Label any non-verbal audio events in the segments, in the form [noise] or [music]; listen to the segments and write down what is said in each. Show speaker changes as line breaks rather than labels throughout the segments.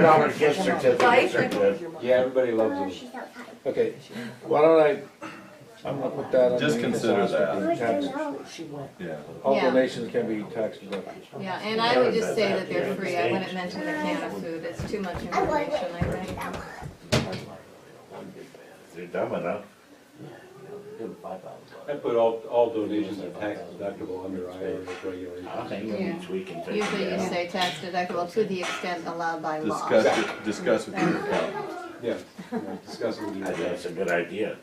Dollar gift certificates are good.
Yeah, everybody loves them.
Okay, why don't I, I'm gonna put that on.
Just
the-
consider that.
Tax-
Yeah.
All
Yeah.
donations can be tax deducted.
Yeah, and I would just say that they're free, I wouldn't mention the can of food, it's too much information, I think.
They're dumb enough.
I put all, all donations are tax deductible under IRS regulations.
I think each we can take
Usually you
it out.
say tax deductible to the extent allowed by law.
Discuss, it- discuss with your accountant.
Yeah, yeah, discuss it with
I
your
think
judge.
that's a good idea.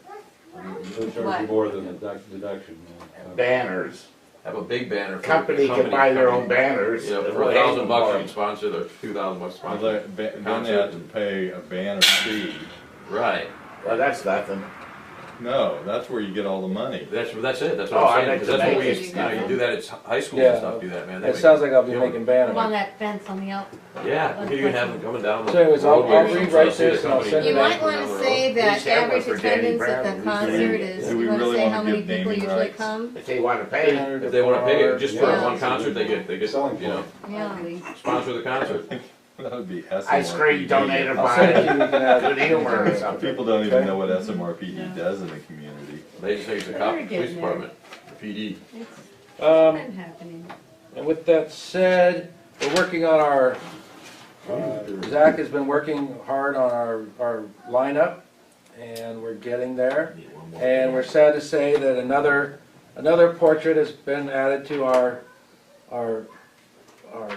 They'll charge you more than the deduct- deduction. yeah.
Banners.
Have a big banner. for the
Company can buy their own banners.
Yeah,
and
for a
hang
thousand bucks,
them.
you can sponsor the two thousand bucks
Well,
sponsor.
they- ba- Then they have to pay a banner fee.
Right.
Well, that's nothing.
No, that's where you get all the money. [laughs]
That's that's it. That's
Oh,
what
I
I'm saying.
like
'cause
to
that's what
make-
we used, you know, you do that at s- high school
Yeah.
and stuff. Do that, man. They
It
make-
sounds like I'll be
you know,
making
Put on
banners.
that fence on the out.
Yeah, you can have them coming down. the
So anyways, I'll- I'll
roadway or something,
rewrite
see the
this and I'll
company
send it
You
down
might
the
wanna
road.
say
We
that
should have one
average
for Danny
attendance at
Brown.
the
Do
concert
we-
is,
do we
you wanna
really
say
wanna
how many
give naming
people usually
rights?
come?
If they wanna pay,
If they wanna pay it just for
Yeah.
one concert, they get, they get,
Selling
you know,
Yeah.
sponsor the concert.
That would be SMRPD.
ice cream donated
I'll send it
by
to you, you can have it.
Good Humor or something.
People don't even
Okay.
know what SMRPD does in the community.
They just take the cop, police department, E. PD.
Um,
Been happening.
And with that said, we're working on our, uh, Zach has been working hard on our, our lineup, and we're getting there. And we're sad to say that another, another portrait has been added to our, our, our,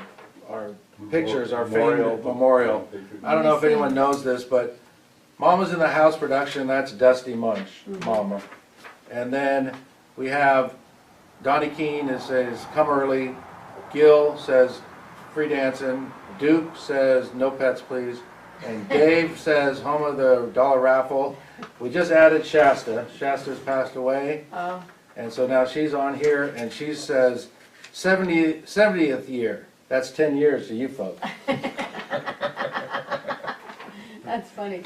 our pictures, our famed memorial. I don't know if anyone knows this, but Mama's in the House production, that's Dusty Munch, Mama. And then we have Donnie Keene is says, come early. Gil says, free dancing. Duke says, no pets, please. And Dave says, home of the dollar raffle. We just added Shasta. Shasta's passed away.
Oh.
And so now she's on here and she says, 70, 70th year. That's 10 years to you folks.
That's funny.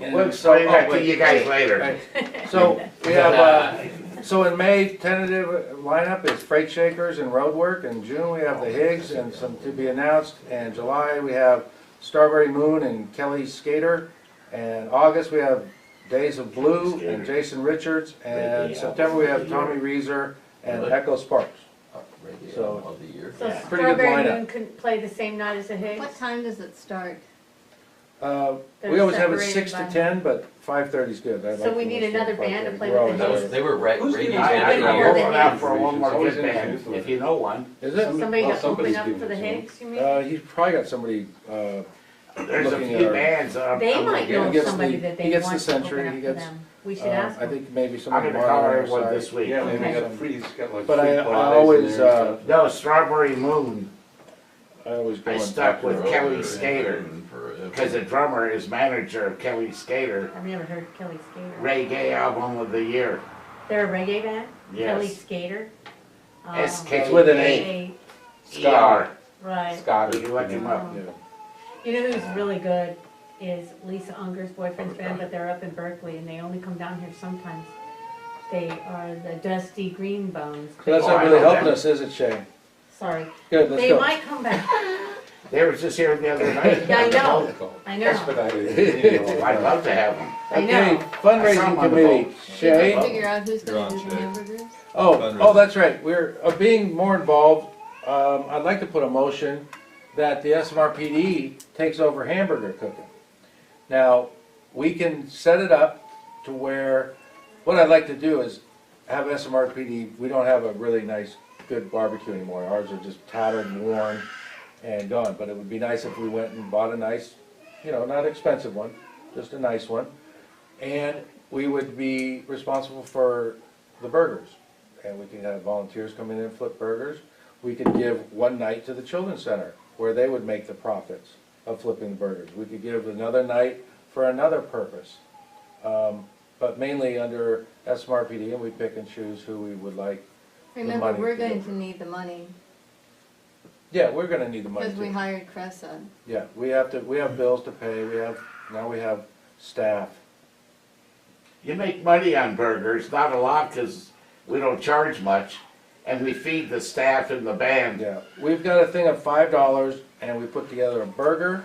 We'll explain
oh,
that to you guys later.
[laughs]
Right. So we have, uh, so in May, tentative lineup is Freight Shakers and Roadwork. In June, we have the Higgs and some to be announced. And July, we have Starberry Moon and Kelly Skater. And August, we have Days of Blue and Jason Richards. And September, we have Tommy Reeser and Echo Sparks. So-
of the year.
So
Yeah.
Pretty good
Strawberry
lineup.
Moon couldn't play the same night as the Higgs?
What time does it start?
Uh, we
They're
always have it
separated
six to
by-
ten, but five thirty's good. I
So
like
we
to
need
listen
another band to
5:30.
play
We're
with
That
always-
was, they were right,
Who's
radio
gonna- I-
I,
bands.
I'm
all
holding
over.
out for one more good band, if you know one.
Is
So
it?
somebody
Well,
to open
somebody's
up
doing
for the
it, so-
Higgs, you mean?
Uh, he's probably got somebody, uh,
There's a
Looking
few
at-
bands. I'm-
They
I'm
might
gonna
He
know
gets
get-
somebody
the-
that
he
they
gets
want
the
to
century,
open
he
up for
gets,
them. We should
uh,
ask
I
them.
think maybe some
I'm gonna
of them
call
are. on
everyone
our
this
side.
week.
Yeah, they
Okay.
got freeze, got like.
But I,
free
I
Fridays in
always,
there and
uh,
stuff.
No, Strawberry Moon,
I always go
I
on
stuck
top of
with
it.
Over
Kelly
and
Skater,
and for-
because the drummer is manager of Kelly Skater,
I've never heard Kelly Skater.
reggae
uh,
album of the year.
They're a reggae band? Kelly
Yes,
Skater? Oh,
S
It's with an
K
okay,
E R.
Right.
You look him up.
Yeah.
You know who's really good is Lisa Unger's boyfriend's band, but they're up in Berkeley and they only come down here sometimes. They are the Dusty Green Bones.
So that's not
Oh, I
really
know
helping
that.
us, is it, Shay?
Sorry.
Good, let's
They
go.
might come back.
They were just here the other night.
[laughs] Yeah, I know.
Call.
I know.
Expedited,
[laughs]
you know,
I'd love to have them.
I
Okay,
know.
I saw
fundraising
him on the boat.
committee,
Did you
Shay?
figure out who's
You're on,
gonna do the
Jay.
hamburgers?
Oh,
Fundraising.
oh, that's right, we're, uh, being more involved, um, I'd like to put a motion that the SMRPD takes over hamburger cooking. Now, we can set it up to where, what I'd like to do is have SMRPD, we don't have a really nice, good barbecue anymore, ours are just tattered and worn and gone, but it would be nice if we went and bought a nice, you know, not expensive one, just a nice one. And we would be responsible for the burgers. And we could have volunteers come in and flip burgers. We could give one night to the children's center where they would make the profits of flipping the burgers. We could give another night for another purpose. Um, But mainly under SMRPD and we pick and choose who we would like.
Remember,
money
we're
to do
going
it.
to need the money,
Yeah, we're gonna need the money
cause we
too.
hired Cressa.
Yeah, we have to, we have bills to pay, we have, now we have staff.
You make money on burgers, not a lot, because we don't charge much, and we feed the staff and the band.
Yeah, we've got a thing of five dollars, and we put together a burger,